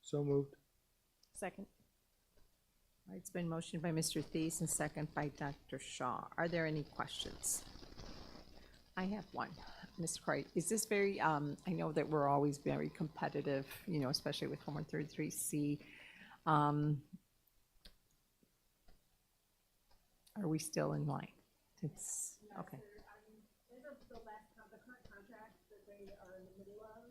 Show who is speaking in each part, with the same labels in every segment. Speaker 1: So moved.
Speaker 2: Second.
Speaker 3: All right, It's been motioned by Mr. Thies and second by Dr. Shaw. Are there any questions? I have one. Ms. Wright, is this very, um, I know that we're always very competitive, you know, especially with 133C. Um, Are we still in line? It's, okay.
Speaker 4: These are the last, con- the current contracts that they are in the middle of.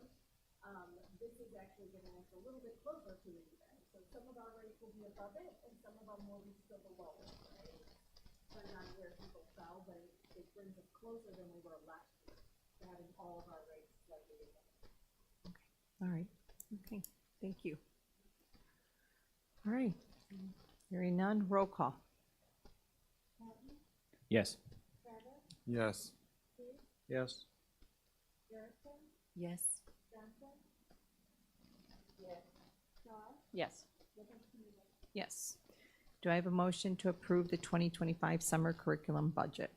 Speaker 4: Um, this is actually getting us a little bit closer to it even. So some of our rates will be above it and some of our will be still below it, right? Depending on where people fell, but it, it brings us closer than we were last year, to having all of our rates slightly above.
Speaker 3: All right, okay, thank you. All right, hearing none, roll call.
Speaker 5: Yes.
Speaker 1: Yes. Yes.
Speaker 3: Yes.
Speaker 2: Yes.
Speaker 3: Yes. Do I have a motion to approve the 2025 summer curriculum budget?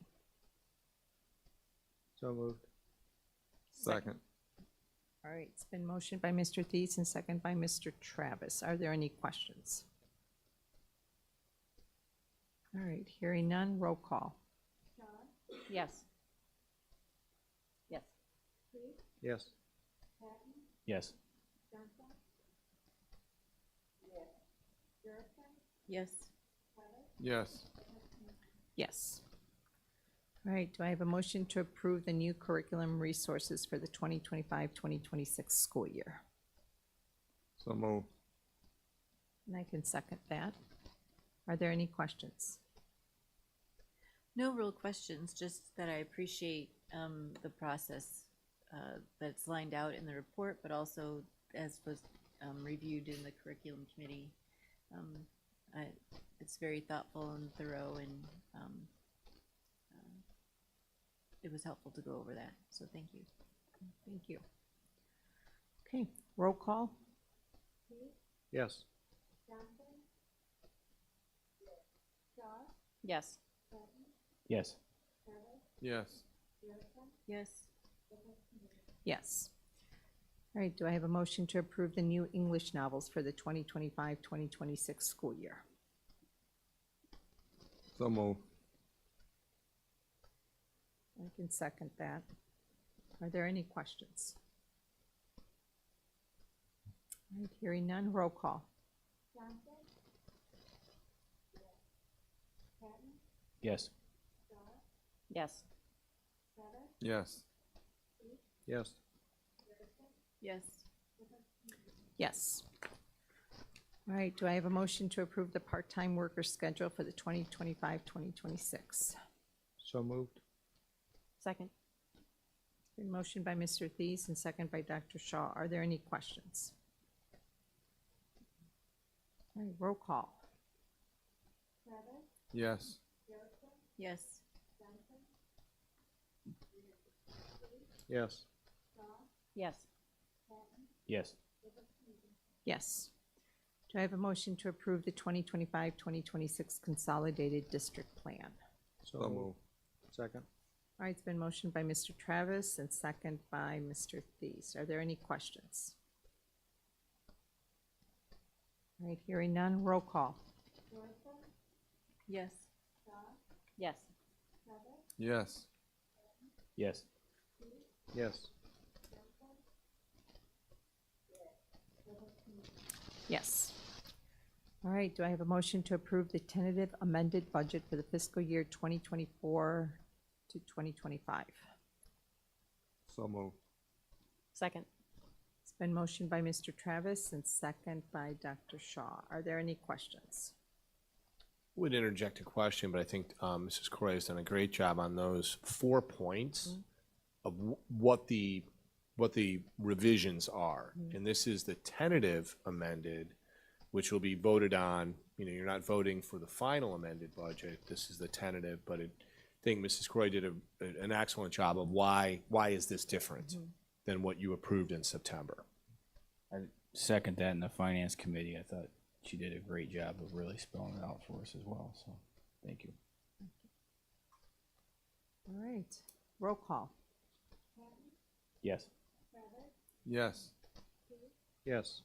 Speaker 1: So moved. Second.
Speaker 3: All right, it's been motioned by Mr. Thies and second by Mr. Travis. Are there any questions? All right, hearing none, roll call.
Speaker 2: Yes. Yes.
Speaker 1: Yes.
Speaker 5: Yes.
Speaker 2: Yes.
Speaker 1: Yes.
Speaker 3: Yes. All right, do I have a motion to approve the new curriculum resources for the 2025-2026 school year?
Speaker 1: So moved.
Speaker 3: And I can second that. Are there any questions?
Speaker 6: No real questions, just that I appreciate um, the process uh, that's lined out in the report, but also as was um, reviewed in the curriculum committee. Um, I, it's very thoughtful and thorough, and um, uh, it was helpful to go over that. So thank you.
Speaker 3: Thank you. Okay, roll call?
Speaker 1: Yes.
Speaker 2: Yes.
Speaker 5: Yes.
Speaker 1: Yes.
Speaker 6: Yes.
Speaker 3: Yes. All right, do I have a motion to approve the new English novels for the 2025, 2026 school year?
Speaker 1: So moved.
Speaker 3: I can second that. Are there any questions? All right, hearing none, roll call.
Speaker 5: Yes.
Speaker 2: Yes.
Speaker 1: Yes. Yes.
Speaker 6: Yes.
Speaker 3: Yes. All right, do I have a motion to approve the part-time worker schedule for the 2025, 2026?
Speaker 1: So moved.
Speaker 2: Second.
Speaker 3: Been motion by Mr. Thies and second by Dr. Shaw. Are there any questions? All right, roll call.
Speaker 1: Yes.
Speaker 6: Yes.
Speaker 1: Yes.
Speaker 2: Yes.
Speaker 5: Yes.
Speaker 3: Yes. Do I have a motion to approve the 2025, 2026 Consolidated District Plan?
Speaker 1: So moved. Second.
Speaker 3: All right, it's been motioned by Mr. Travis and second by Mr. Thies. Are there any questions? All right, hearing none, roll call.
Speaker 6: Yes.
Speaker 2: Yes.
Speaker 1: Yes.
Speaker 5: Yes.
Speaker 1: Yes.
Speaker 3: Yes. All right, do I have a motion to approve the tentative amended budget for the fiscal year 2024 to 2025?
Speaker 1: So moved.
Speaker 2: Second.
Speaker 3: It's been motioned by Mr. Travis and second by Dr. Shaw. Are there any questions?
Speaker 7: would interject a question, but I think um, Mrs. Correa has done a great job on those four points
Speaker 5: Mm-hmm.
Speaker 7: of wh- what the, what the revisions are.
Speaker 5: Mm-hmm.
Speaker 7: And this is the tentative amended, which will be voted on, you know, you're not voting for the final amended budget. This is the tentative, but it- I think Mrs. Correa did a, an excellent job of why, why is this different
Speaker 5: Mm-hmm.
Speaker 7: than what you approved in September?
Speaker 5: Second that in the finance committee. I thought she did a great job of really spelling it out for us as well. So, thank you.
Speaker 3: All right, roll call.
Speaker 5: Yes.
Speaker 1: Yes. Yes.